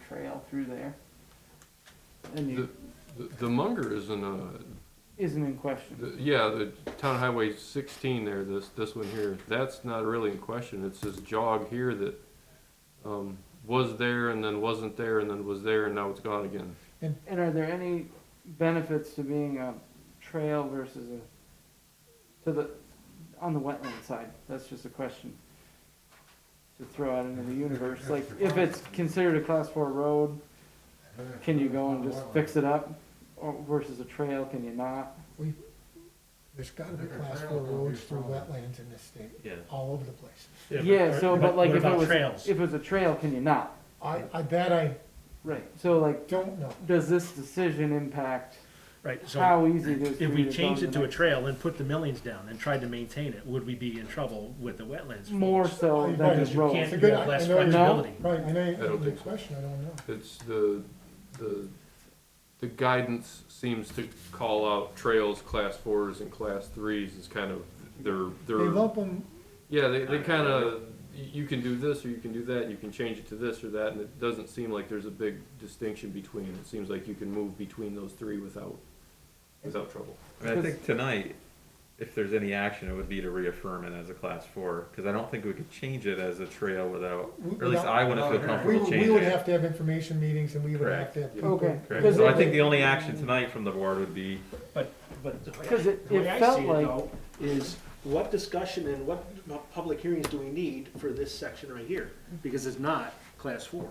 trail through there. And you, The, the Munger isn't a, isn't in question. the- yeah, the Town Highway sixteen there, this, this one here, that's not really in question, it's this jog here that, um, was there and then wasn't there and then was there and now it's gone again. And are there any benefits to being a trail versus a, to the, on the wetland side? That's just a question to throw out into the universe. Like, if it's considered a class four road, can you go and just fix it up? Or versus a trail, can you not? There's gotta be class four roads through wetlands in this state, Yeah. all over the place. Yeah, so, but like what if it about was, trails? if it was a trail, can you not? I, I bet I Right, so like, don't know. does this decision impact Right, so how easy it is? for if you we to go changed in it the to a next- trail and put the millings down and tried to maintain it, would we be in trouble with the wetlands? More folks? so Right, than because the you road. It's a Can't, you good- have less I know- flexibility. Right, and I, don't the think so. question, I don't know. It's the, the, the guidance seems to call out trails, class fours and class threes is kind of their, They their. lump them, Yeah, they, they kind of, you can do this or you can do that, and you can change it to this or that, and it doesn't seem like there's a big distinction between. It seems like you can move between those three without, without trouble. I mean, I think tonight, if there's any action, it would be to reaffirm it as a class four, because I don't think we could change it as a trail without, or at least I wouldn't feel we, comfortable we would changing it. have to have information meetings and we would have Correct. to have people. Okay. Correct, Because so it- I think the only action tonight from the board would be, But, but the way- Because it- the it way I felt see like- though, Is what discussion and what public hearings do we need for this section right here? Because it's not class four,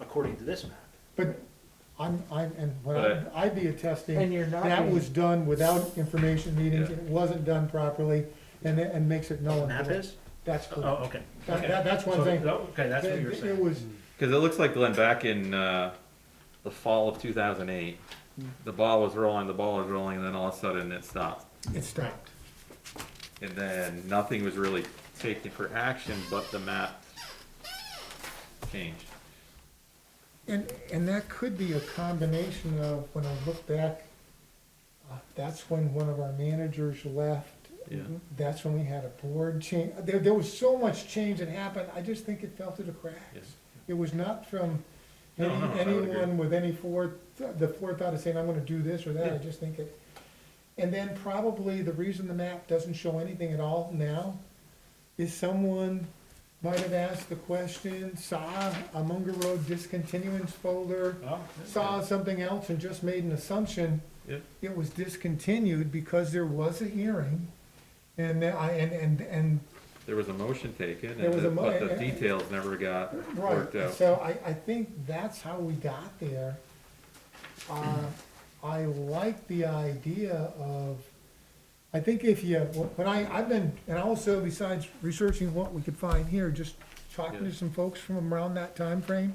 according to this map. But I'm, I'm, and what I- But I'd be And attesting, you're not. that being- was done without information meetings, Yeah. and it wasn't done properly, and, it- and makes it null and Map void. is? That's Oh, correct. okay. That, okay. that- that's one So, thing. Okay, that's what It- you're It saying. was, because it looks like Glenn, back in, uh, the fall of two thousand eight, the ball was rolling, the ball was rolling, and then all of a sudden it stopped. it stopped. And then nothing was really taken for action, but the map changed. And, and that could be a combination of, when I look back, uh, that's when one of our managers left. Yeah. That's when we had a board change. There, there was so much change that happened, I just think it fell through the cracks. Yes. It was not from any, No, no, I would agree. anyone with any foreth, the forethought of saying, I'm gonna do this or that, I Yeah. just think it. And then probably the reason the map doesn't show anything at all now is someone might have asked the question, saw a Munger Road discontinuance folder, Oh, saw something else and just made an assumption. Yep. It was discontinued because there was a hearing and then I, and, and, and, There was a motion taken, There and was the- a mo- but the and- and- details never got right. worked out. So I, I think that's how we got there. Uh, I like the idea of, I think if you, when I, I've been, and also besides researching what we could find here, just talking to Yeah. some folks from around that time frame.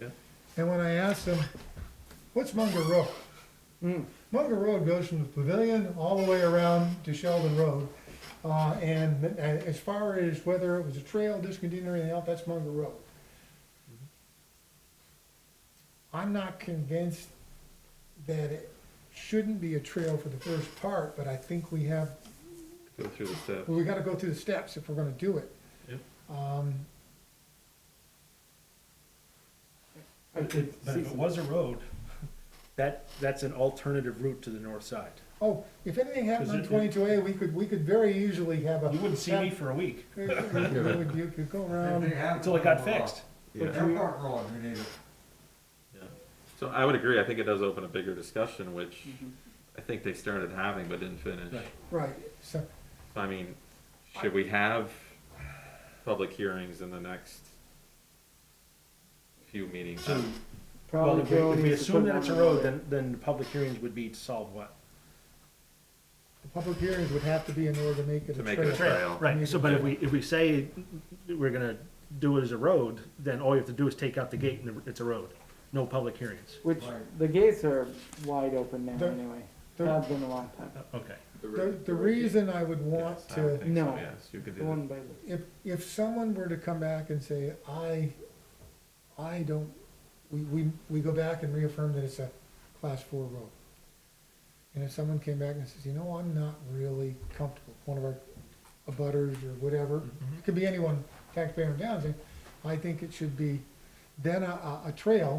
Yeah. And when I asked them, what's Munger Road? Hmm. Mm. Munger Road goes from the pavilion all the way around to Sheldon Road. Uh, and, and as far as whether it was a trail, discontinued or anything else, that's Munger Road. I'm not convinced that it shouldn't be a trail for the first part, but I think we have, Go through the steps. well, we gotta go through the steps if we're gonna do it. Yep. Um, I could But see if it some- was a road, that, that's an alternative route to the north side. oh, if anything happened on Is it- twenty-two A, we could, we could very easily have a. You wouldn't see me for a week You could- you could go around. Um, until it got fixed. Yeah. Airport Road, we need it. So I would agree. I think it does open a bigger discussion, which Mhm. I think they started having but didn't finish. Right. Right, so, So, I mean, should we have public hearings in the next few meetings? So, well, Probably if we- Joe if we needs to assume put that one it's a on road, there. then, then the public hearings would be to solve what? the public hearings would have to be in order to make it To a make it a trail. trail. Right, so, but if we, if we say we're gonna do it as a road, then all you have to do is take out the gate and it's a road. No public hearings. Which, Right. the gates are wide open now The- anyway. the- Have been a long time. Okay. The, the reason I would want Yes, I to. don't think so, No. Yes, you could The do that. one by the, if, if someone were to come back and say, I, I don't, we, we, we go back and reaffirm that it's a class four road. And if someone came back and says, you know, I'm not really comfortable, one of our abutters or whatever, Mm-hmm. it could be anyone, taxpayer in town, saying, I think it should be, then a, a, a trail